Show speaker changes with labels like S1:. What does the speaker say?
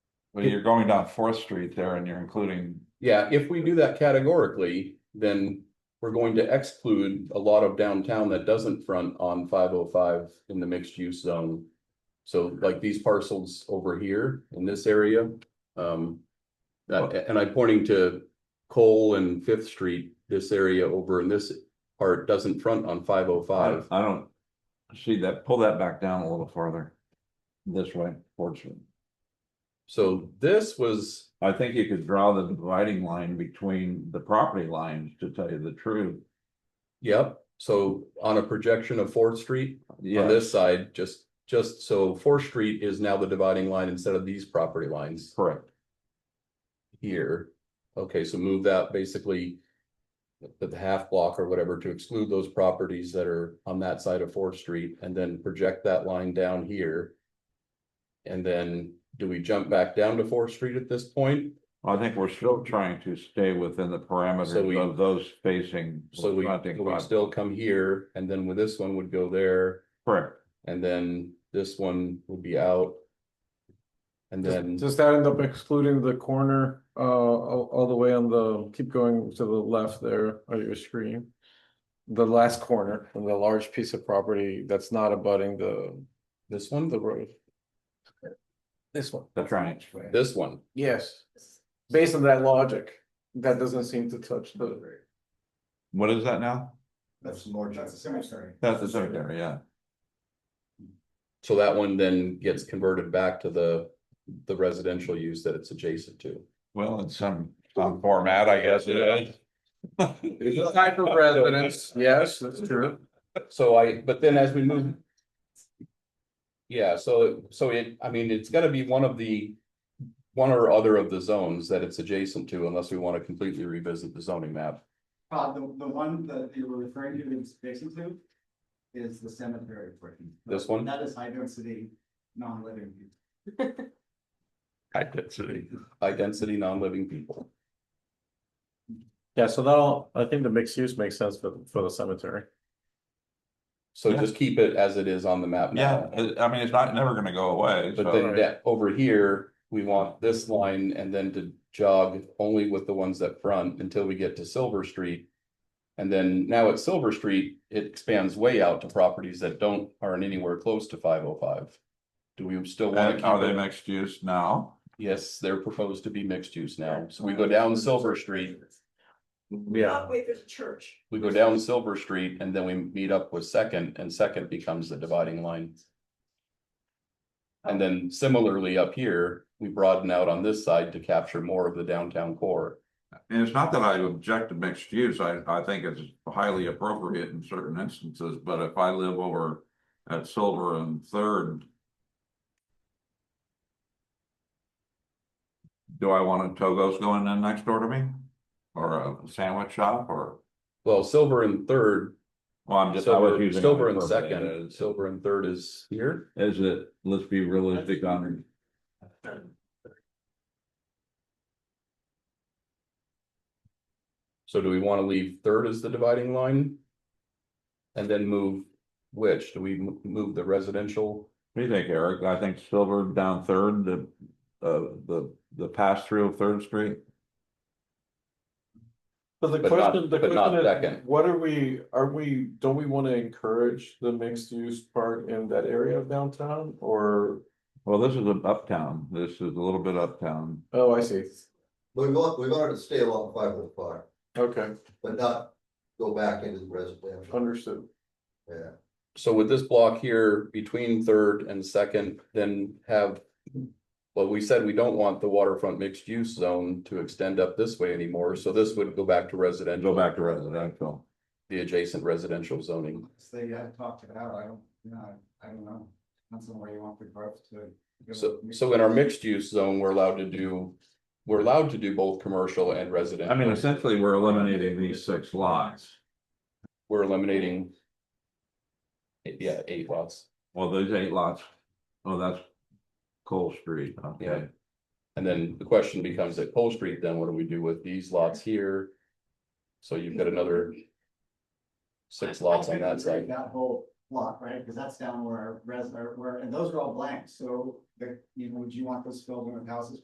S1: Well, you're going down Fourth Street there and you're including,
S2: Yeah, if we do that categorically, then we're going to exclude a lot of downtown that doesn't front on five oh five in the mixed use zone. So like these parcels over here in this area, um. that- and I'm pointing to Cole and Fifth Street, this area over in this part doesn't front on five oh
S1: I
S2: five.
S1: I don't. See that, pull that back down a little farther. This way, Fourth Street.
S2: So this was,
S1: I think you could draw the dividing line between the property lines, to tell you the truth.
S2: yep, so on a projection of Fourth Street, on
S1: Yeah,
S2: this side, just, just so Fourth Street is now the dividing line instead of these property lines
S1: correct.
S2: here. Okay, so move that basically the, the half block or whatever to exclude those properties that are on that side of Fourth Street and then project that line down here. And then do we jump back down to Fourth Street at this point?
S1: I think we're still trying to stay within the
S2: So we-
S1: parameters of those facing.
S2: So we,
S1: fronting
S2: we
S1: five-
S2: still come here and then with this one would go there
S1: Correct.
S2: and then this one would be out. And
S3: Does-
S2: then.
S3: Does that end up excluding the corner, uh, all, all the way on the, keep going to the left there on your screen? The last corner, and the large piece of property that's not abutting the,
S2: This one,
S3: the road. This one.
S1: That's right.
S2: this one,
S3: Yes, based on that logic, that doesn't seem to touch the.
S1: What is that now?
S4: That's large. That's the cemetery.
S1: That's the cemetery, yeah.
S2: so that one then gets converted back to the, the residential use that it's adjacent to.
S1: Well, in some, some format, I guess it is.
S3: Type of residence, yes, that's true.
S2: So I, but then as we move. Yeah, so, so it, I mean, it's gotta be one of the, one or other of the zones that it's adjacent to unless we wanna completely revisit the zoning map.
S4: Uh, the, the one that you were referring to is adjacent to is the cemetery portion.
S2: This one?
S4: That is high density, non-living.
S1: I did see.
S2: High density, non-living people.
S3: Yeah, so that'll, I think the mixed use makes sense for, for the cemetery.
S2: So just keep it as it is on the map.
S1: Yeah,
S2: now.
S1: it- I mean, it's not, never gonna go away,
S2: Um, But
S1: so,
S2: then that, over here, we want this line and then to jog only with the ones that front until we get to Silver Street. And then now at Silver Street, it expands way out to properties that don't, aren't anywhere close to five oh five. Do we still want
S1: and
S2: to
S1: are they
S2: keep it?
S1: mixed use now?
S2: Yes, they're proposed to be mixed use now. So we go down Silver Street,
S3: Yeah,
S5: Wait, there's a church.
S2: we go down Silver Street and then we meet up with Second and Second becomes the dividing line. And then similarly up here, we broaden out on this side to capture more of the downtown core.
S1: And it's not that I object to mixed use, I, I think it's highly appropriate in certain instances, but if I live over at Silver and Third. Do I want a Togo's going in next door to me? Or a sandwich shop or,
S2: Well, silver and third,
S1: well, I'm just. I was
S2: silver,
S1: using-
S2: silver and second, silver and third is here.
S1: Is it, let's be realistic on,
S2: So do we want to leave third as the dividing line? And then move which? Do we mo- move the residential?
S1: what do you think, Eric? I think Silver down Third, the, uh, the, the pass through of Third Street.
S3: but the
S2: But not-
S3: question, the
S2: but not
S3: question is,
S2: second.
S3: what are we, are we, don't we wanna encourage the mixed use part in that area of downtown, or,
S1: Well, this is a- uptown, this is a little bit uptown.
S3: oh, I see,
S6: We want, we wanted to stay along five oh five,
S3: okay,
S6: but not go back into the residential,
S3: understood.
S6: yeah.
S2: So with this block here between third and second, then have. Well, we said we don't want the waterfront mixed use zone to extend up this way anymore, so this would go back to
S1: And go
S2: residential,
S1: back to residential.
S2: the adjacent residential zoning.
S4: So you have talked it out, I don't, you know, I don't know, that's somewhere you want the growth to. go.
S2: So, so in our mixed use zone, we're allowed to do, we're allowed to do both commercial and residential.
S1: I mean, essentially, we're eliminating these six lots.
S2: We're eliminating. Yeah, eight lots,
S1: Well, those eight lots, oh, that's Cole Street, okay.
S2: and then the question becomes at Pole Street, then what do we do with these lots here? So you've got another. Six lots on that side.
S4: That whole block, right, because that's down where our res, or where, and those are all blank, so the, you know, would you want those filled in with houses?